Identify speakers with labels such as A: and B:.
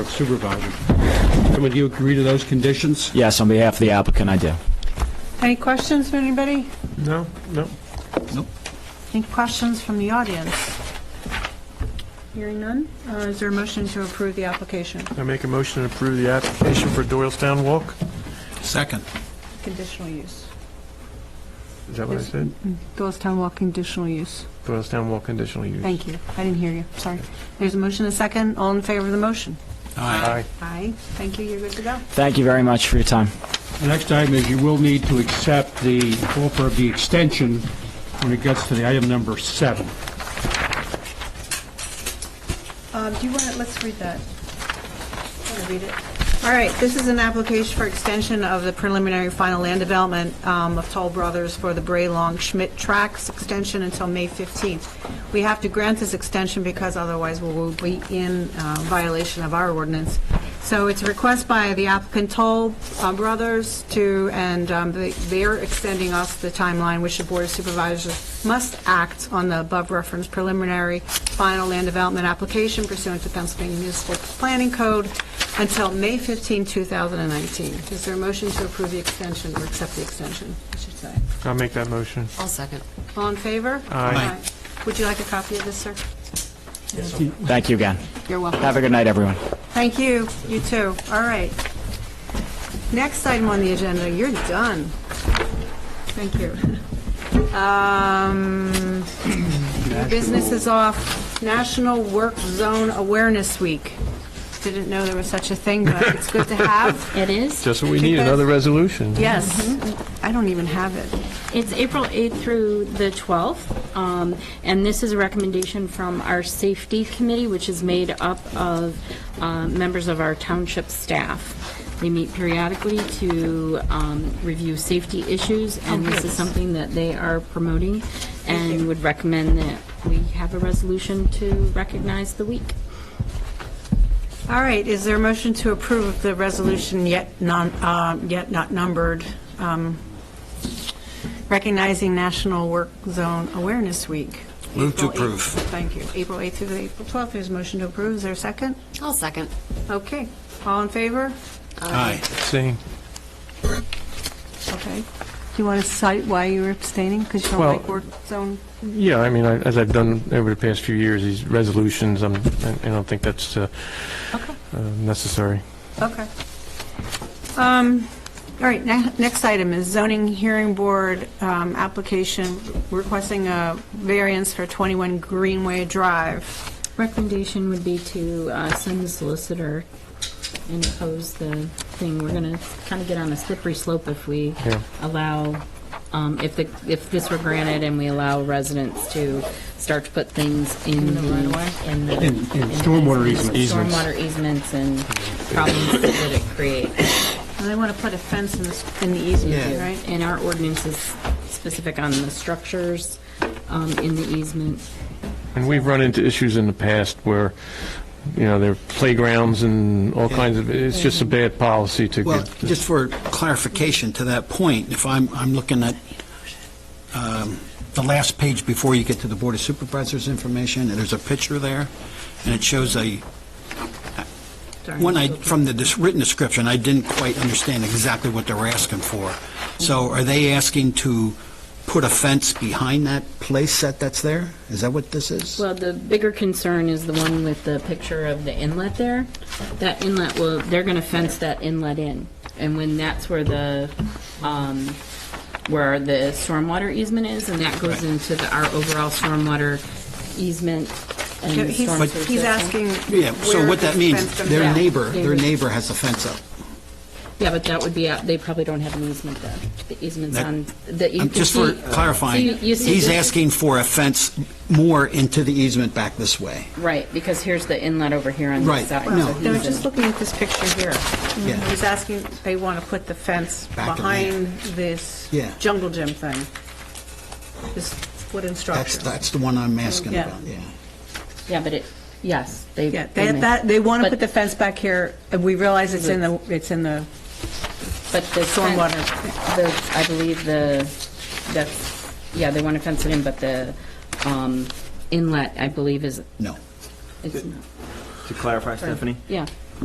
A: Supervisor. Someone, do you agree to those conditions?
B: Yes, on behalf of the applicant, I do.
C: Any questions from anybody?
D: No, no.
C: Any questions from the audience? Hearing none, Uh, is there a motion to approve the application?
D: I make a motion to approve the application for Doylestown Walk.
E: Second.
C: Conditional use.
D: Is that what I
C: Yes.
D: said?
C: Doylestown Walk conditional use.
D: Doylestown Walk conditional use.
C: Thank you. I didn't hear you, sorry. There's a motion, a second. All in favor of the motion?
D: Aye.
C: Aye. Thank you, you're good to go.
B: Thank you very much for your time.
A: The next item is you will need to accept the offer of the extension when it gets to the item number seven.
C: Um, Do you want to, let's read that. I want to read it. All right, this is an application for extension of the preliminary final land development um, of Toll Brothers for the Bray Long Schmidt Tracks extension until May 15th. We have to grant this extension because otherwise we will be in uh, violation of our ordinance. So it's a request by the applicant Toll uh, Brothers to, and um, they- they're extending us the timeline which the Board of Supervisors must act on the above referenced preliminary final land development application pursuant to Pennsylvania Municipal Planning Code until May 15, 2019. Is there a motion to approve the extension or accept the extension, I should say?
D: I'll make that motion.
F: I'll second.
C: All in favor?
D: Aye.
C: Would you like a copy of this, sir?
B: Thank you again.
C: You're welcome.
B: Have a good night, everyone.
C: Thank you, you too. All right. Next item on the agenda, you're done. Thank you. Um, New business is off, National Work Zone Awareness Week. Didn't know there was such a thing, but it's good to have.
G: It is.
D: Just what we need, another resolution.
C: Yes, Mm-hmm. I don't even have it.
G: It's April 8th through the 12th, um, and this is a recommendation from our Safety Committee, which is made up of uh, members of our township staff. They meet periodically to um, review safety issues, and this is something that they are promoting, and would recommend that we have a resolution to recognize the week.
C: All right, is there a motion to approve the resolution yet non, uh, yet not numbered, um, recognizing National Work Zone Awareness Week?
E: Move to
C: April eighth-
E: approve.
C: Thank you. April 8th through the April 12th, there's a motion to approve, is there a second?
F: I'll second.
C: Okay, all in favor?
E: Aye.
D: Same.
C: Okay. Do you want to cite why you're abstaining, because you don't
D: Well-
C: like work zone?
D: Yeah, I mean, I- as I've done over the past few years, these resolutions, I'm- I I don't think that's uh,
C: Okay.
D: uh, necessary.
C: Okay. Um, All right, ne- next item is zoning hearing board um, application requesting a variance for 21 Greenway Drive.
G: Recommendation would be to uh, send the solicitor and oppose the thing. We're going to kind of get on a slippery slope if we
D: Yeah.
G: allow, um, if the, if this were granted and we allow residents to start to put things in the, in the.
A: In- in stormwater
D: easements.
G: Stormwater easements and problems that it creates.
C: And they want to put a fence in this- in the easement,
E: Yeah.
C: right?
G: And our ordinance is specific on the structures um, in the easement.
D: And we've run into issues in the past where, you know, there are playgrounds and all kinds of, it's just a bad policy to
E: Well,
D: get-
E: just for clarification to that point, if I'm, I'm looking at um, the last page before you get to the Board of Supervisors information, and there's a picture there, and it shows a, one I, from the dis- written description, I didn't quite understand exactly what they were asking for. So are they asking to put a fence behind that place that that's there? Is that what this is?
G: Well, the bigger concern is the one with the picture of the inlet there. That inlet will, they're going to fence that inlet in. And when that's where the, um, where the stormwater easement is, and that goes into the, our overall stormwater easement and
C: He's
G: storm sewer
C: he's asking
G: system.
E: Yeah, so
C: where
E: what that
C: this
E: means,
C: fence comes
E: their
G: Yeah.
C: down.
E: neighbor,
G: They
E: their
G: would-
E: neighbor has a fence up.
G: Yeah, but that would be, out- they probably don't have an easement there. The easement's
E: That-
G: on, that you
E: Um,
G: can
E: Just for
G: see- uh,
E: clarifying,
G: So you- you see
E: he's
G: this-
E: asking for a fence more into the easement back this way.
G: Right, because here's the inlet over here on the
E: Right,
G: side.
E: no.
C: No, just looking at this picture here.
E: Yeah.
C: He's asking, they want to put the fence
E: Back of the-
C: behind this
E: Yeah.
C: jungle gym thing, this wooden
E: That's,
C: structure.
E: that's the one I'm asking
C: Yeah.
E: about, yeah.
G: Yeah, but it, yes, they.
C: Yeah,
G: they
C: they,
G: may.
C: that, they want to put
G: But-
C: the fence back here, and we realize it's in the, it's in the,
G: But the
C: Stormwater.
G: fence- The, I believe the, that's, yeah, they want to fence it in, but the um, inlet, I believe, is,
E: No,
G: is,
B: To clarify, Stephanie,
G: yeah.